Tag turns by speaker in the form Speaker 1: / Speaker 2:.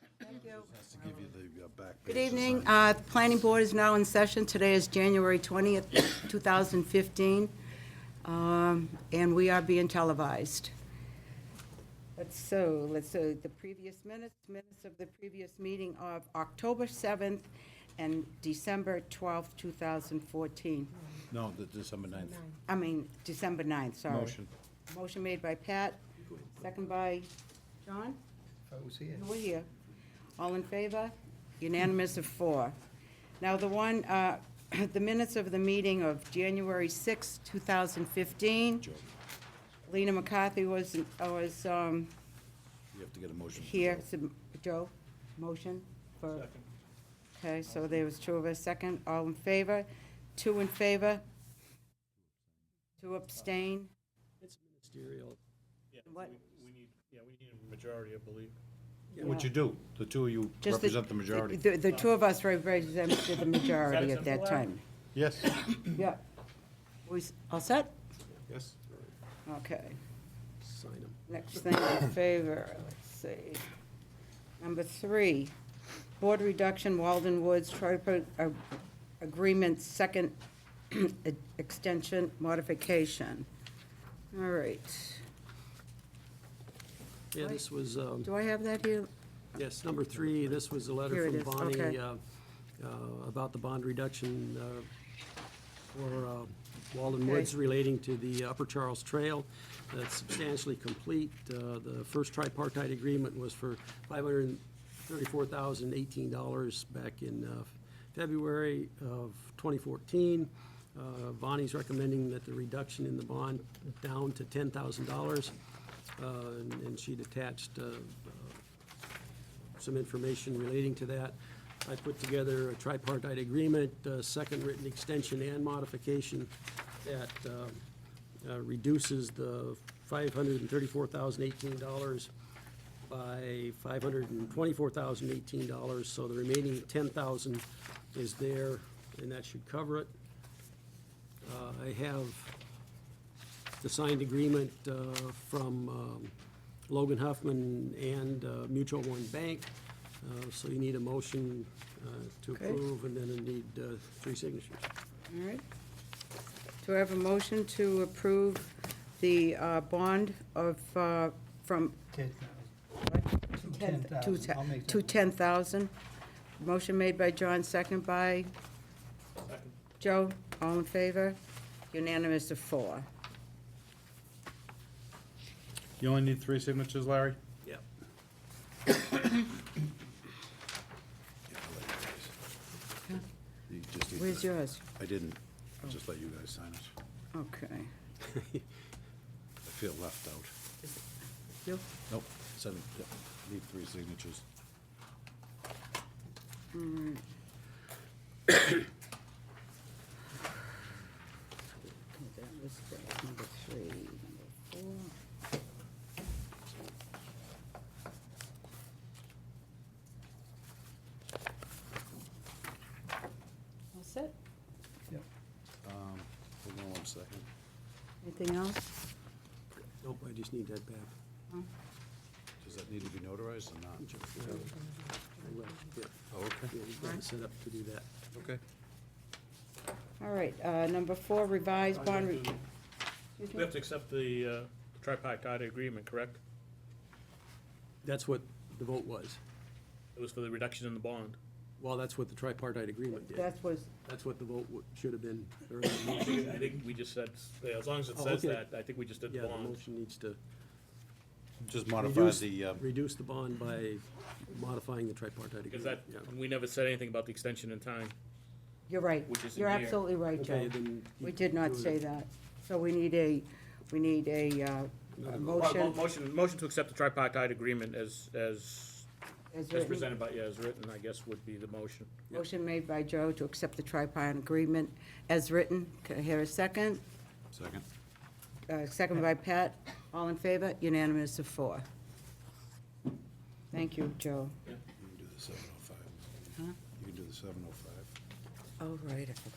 Speaker 1: to give you the uh, back
Speaker 2: Good
Speaker 1: pages.
Speaker 2: evening. Uh, The planning board is now in session. Today is January 20th, 2015, um, and we are being televised. Let's, so, let's, so the previous minutes, minutes of the previous meeting of October 7th and December 12th, 2014.
Speaker 1: No, the December 9th.
Speaker 2: I mean, December 9th, sorry.
Speaker 1: Motion.
Speaker 2: Motion made by Pat, second by John? You were here. All in favor? Unanimous of four. Now, the one, uh, the minutes of the meeting of January 6, 2015,
Speaker 1: Joe,
Speaker 2: Lena McCarthy was, was um,
Speaker 1: you have to get a motion. for
Speaker 2: here,
Speaker 1: Joe.
Speaker 2: So, Joe, motion for... Okay, so there was two of us, second, all in favor, two in favor, two abstain.
Speaker 3: It's ministerial.
Speaker 4: Yeah,
Speaker 2: What-
Speaker 4: we- we need, yeah, we need a majority, I believe.
Speaker 1: What you do, the two of you
Speaker 2: Just the-
Speaker 1: represent the majority.
Speaker 2: The the two of us represented the majority at that
Speaker 4: acceptable,
Speaker 2: time.
Speaker 4: Aaron?
Speaker 1: Yes,
Speaker 2: Yeah. We s- all set?
Speaker 1: yes.
Speaker 2: Okay.
Speaker 3: Sign them.
Speaker 2: Next thing in favor, let's see. Number three, board reduction Walden Woods tripartite ag- agreement, second extension modification. All right.
Speaker 3: Yeah, this was, um,
Speaker 2: Do I have that here?
Speaker 3: yes, number three, this was a
Speaker 2: Here
Speaker 3: letter
Speaker 2: it
Speaker 3: from
Speaker 2: is,
Speaker 3: Bonnie
Speaker 2: okay.
Speaker 3: uh, uh, about the bond reduction uh, for uh, Walden
Speaker 2: Okay.
Speaker 3: Woods relating to the Upper Charles Trail. That's substantially complete. Uh, The first tripartite agreement was for $534,018 back in uh, February of 2014. Uh, Bonnie's recommending that the reduction in the bond down to $10,000. Uh, and- And she'd attached uh, some information relating to that. I put together a tripartite agreement, uh, second written extension and modification that um, uh, reduces the $534,018 by $524,018, so the remaining $10,000 is there, and that should cover it. Uh, I have the signed agreement uh, from um, Logan Huffman and uh, Mutual One Bank. Uh, So you need a motion uh, to
Speaker 2: Okay.
Speaker 3: approve, and then you need uh, three signatures.
Speaker 2: All right. Do I have a motion to approve the uh, bond of, uh, from
Speaker 5: Ten
Speaker 2: ten-
Speaker 5: thousand.
Speaker 2: to te- to 10,000? Motion made by John, second by Joe. All in favor? Unanimous of four.
Speaker 1: You only need three signatures, Larry?
Speaker 3: Yep.
Speaker 1: You just need
Speaker 2: Where's
Speaker 1: to-
Speaker 2: yours?
Speaker 1: I didn't, I just let you guys sign it.
Speaker 2: Okay.
Speaker 1: I feel left out.
Speaker 2: You?
Speaker 1: Nope, seven, yeah, need three signatures.
Speaker 2: Okay, that was that, number three, number four. All set?
Speaker 1: Um, Hold on one second.
Speaker 2: Anything else?
Speaker 3: Nope, I just need that back.
Speaker 1: Does that need to be notarized or not?
Speaker 3: Ju- uh, I will, yeah.
Speaker 1: Oh, okay,
Speaker 3: Yeah, you've got it set up to do that.
Speaker 1: okay.
Speaker 2: All right, uh, number four, revised bond, re-
Speaker 4: We have to accept the uh, tripartite agreement, correct?
Speaker 3: That's what the vote was.
Speaker 4: It was for the reduction in the bond.
Speaker 3: Well, that's what the tripartite agreement did.
Speaker 2: that was,
Speaker 3: That's what the vote wo- should have been, or the
Speaker 4: I
Speaker 3: motion-
Speaker 4: think we just said, yeah, as long as it
Speaker 3: Oh,
Speaker 4: says
Speaker 3: okay.
Speaker 4: that, I think we just did
Speaker 3: yeah,
Speaker 4: the
Speaker 3: the
Speaker 4: bond.
Speaker 3: motion needs to
Speaker 1: Just modify
Speaker 3: reduce,
Speaker 1: the, um,
Speaker 3: reduce the bond by modifying the tripartite agreement.
Speaker 4: Because that,
Speaker 3: yeah.
Speaker 4: we never said anything about the extension in time.
Speaker 2: you're right.
Speaker 4: Which is in
Speaker 2: You're
Speaker 4: here.
Speaker 2: absolutely right,
Speaker 3: Okay,
Speaker 2: Joe.
Speaker 3: then you
Speaker 2: We did not
Speaker 3: do it.
Speaker 2: say that. So we need a, we need a uh, a
Speaker 4: Well, mo-
Speaker 2: motion
Speaker 4: Motion, motion to accept the tripartite agreement as, as,
Speaker 2: as
Speaker 4: as
Speaker 2: written.
Speaker 4: presented by, yeah, as written, I guess, would be the motion.
Speaker 2: Motion made by Joe to accept the tripartite agreement as written. Can I hear a second?
Speaker 1: second.
Speaker 2: Uh, Second by Pat. All in favor? Unanimous of four. Thank you, Joe.
Speaker 1: oh You can do the 705. You can do the 705.
Speaker 2: All right, I forgot.